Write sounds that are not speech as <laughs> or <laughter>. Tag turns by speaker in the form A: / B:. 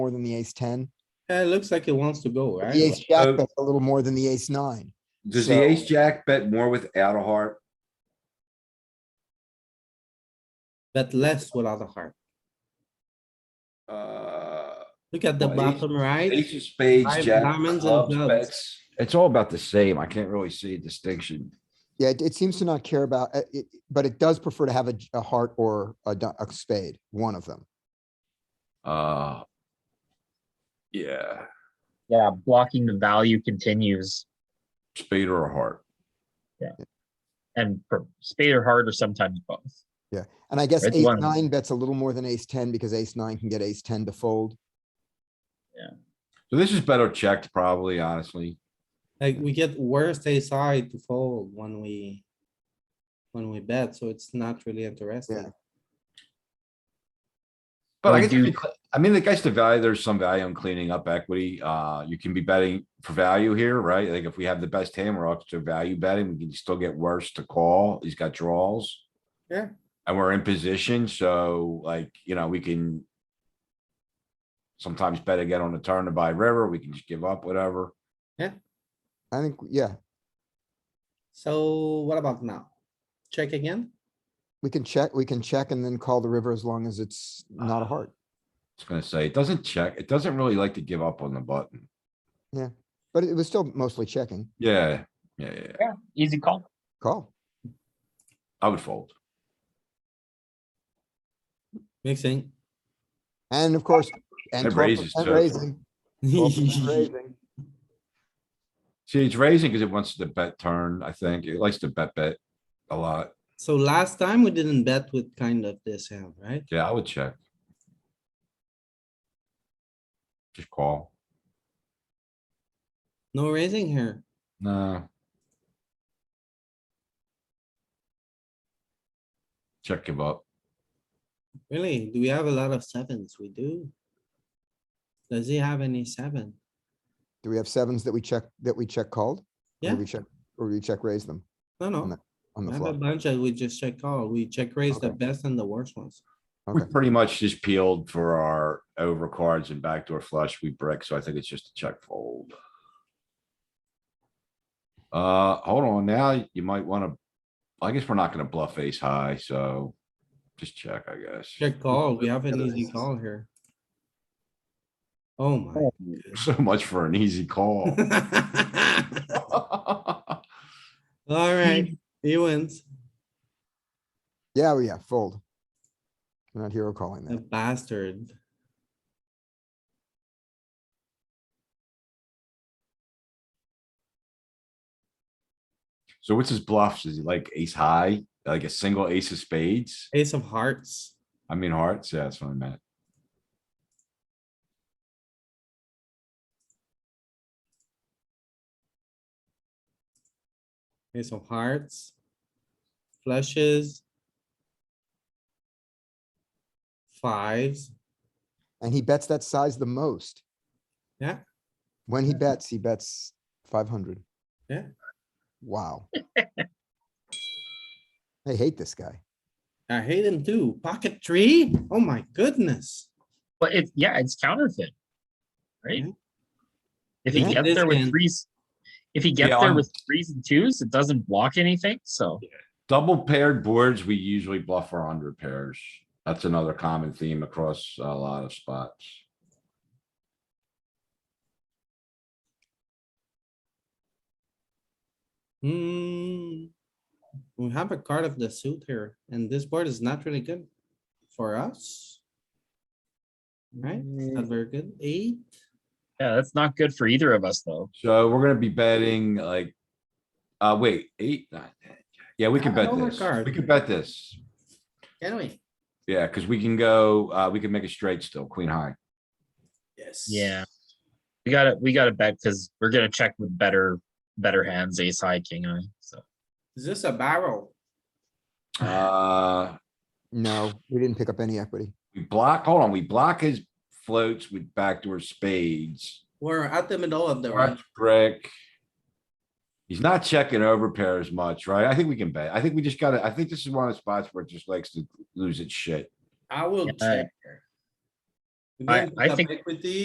A: more than the ace ten.
B: Yeah, it looks like it wants to go, right?
A: The ace jack
C: Uh,
A: bets a little more than the ace nine.
C: Does the
A: So-
C: ace jack bet more without a heart?
B: But less without a heart.
C: Uh,
B: Look at the
C: Well, ace-
B: bottom right.
C: ace of spades,
B: Five
C: jack,
B: diamonds and
C: clubs,
B: clubs.
C: bets. It's all about the same. I can't really see a distinction.
A: Yeah, it, it seems to not care about, uh, it, but it does prefer to have a, j- a heart or a, du- a spade, one of them.
C: Uh. Yeah,
D: Yeah, blocking the value continues
C: spade or a heart.
D: and for spade or heart or sometimes both.
A: And I guess
D: It's
A: ace
D: one of them.
A: nine bets a little more than ace ten because ace nine can get ace ten to fold.
C: So this is better checked probably, honestly.
B: Like we get worst ace high to fold when we. When we bet, so it's not really interesting.
C: But
D: Or
C: I guess,
D: do-
C: if you cle- I mean, the guys to value, there's some value in cleaning up equity. Uh, you can be betting for value here, right? Like if we have the best hand, we're up to value betting. We can still get worse to call. He's got draws.
B: Yeah.
C: And we're in position, so like, you know, we can. Sometimes bet again on the turn to buy river. We can just give up whatever.
A: I think, yeah,
B: So what about now? Check again?
A: we can check, we can check and then call the river as long as it's not a
C: Ah.
A: heart.
C: It's gonna say, it doesn't check. It doesn't really like to give up on the button.
A: But it was still mostly checking.
C: Yeah, yeah, yeah. yeah.
D: Yeah, easy call.
A: Call.
C: I would fold.
B: Mixing.
A: And of course, and
C: It
A: twelve
C: raises
A: percent
C: too.
A: raising.
B: <laughs>
A: 12% raising.
C: See, it's raising because it wants to bet turn, I think. It likes to bet bet a lot.
B: So last time we didn't bet with kind of this hand, right?
C: Yeah, I would check. Just call.
B: No raising here.
C: Nah. Check give up.
B: Really? Do we have a lot of sevens? We do. Does he have any seven?
A: Do we have sevens that we check, that we check called? Or do
B: Yeah.
A: We check, or we check raise them
B: No, no.
A: on the
B: I have a
A: flop.
B: bunch that we just check call. We check raise the
A: Okay.
B: best and the worst ones.
C: We
A: Okay,
C: pretty much just peeled for our overcards and backdoor flush. We brick, so I think it's just a check fold. Uh, hold on now. You might wanna, I guess we're not gonna bluff ace high, so just check, I guess.
B: Check call. We have an
A: Yeah,
B: easy
A: this is-
B: call here. Oh my.
C: <laughs>
B: <laughs>
C: So much for an easy call. <laughs>
B: Alright, he wins.
A: yeah, well, yeah, fold. We're not hero calling
B: A
A: that.
B: bastard.
C: So what's his bluffs? Is he like ace high, like a single ace of spades?
B: Ace of hearts.
C: I mean hearts, yeah, that's what I meant.
B: Ace of hearts. Flushes. Fives.
A: And he bets that size the most.
B: Yeah.
A: When he bets, he bets five hundred.
B: Yeah. <laughs>
A: Wow. I hate this guy.
B: I hate him too. Pocket three? Oh my goodness.
D: But it's yeah, it's counterfeit. Right?
B: Yeah.
D: If he
A: Yeah.
D: gets
B: This
D: there with
B: hand.
D: threes, if he gets
C: Yeah,
D: there
C: on-
D: with threes and twos, it doesn't block anything, so.
C: Double paired boards, we usually bluff our under pairs. That's another common theme across a lot of spots.
B: Hmm. We have a card of the suit here and this board is not really good for us. Right? It's Not very good. Eight.
D: Yeah, that's not good for either of us though.
C: So we're gonna be betting like, uh, wait, eight, nine, ten. yeah, we can
B: Yeah,
C: bet this.
B: overcard.
C: We can bet this.
B: Can we?
C: Yeah, cuz we can go, uh, we can make a straight still, queen high.
B: Yes.
D: Yeah. We gotta we gotta bet because we're gonna check with better better hands, ace high, king high. So
B: Is this a barrel?
C: Uh,
A: No, we didn't pick up any equity.
C: we block, hold on, we block his floats with backdoor spades.
B: We're at the middle of the
C: Right,
B: range.
C: Greg. He's not checking over pairs much, right? I think we can bet. I think we just gotta, I think this is one of the spots where it just likes to lose its shit.
B: I will
D: Yeah.
B: check. here. We
D: I-
B: didn't
D: I
B: put up
D: think-
B: Equity,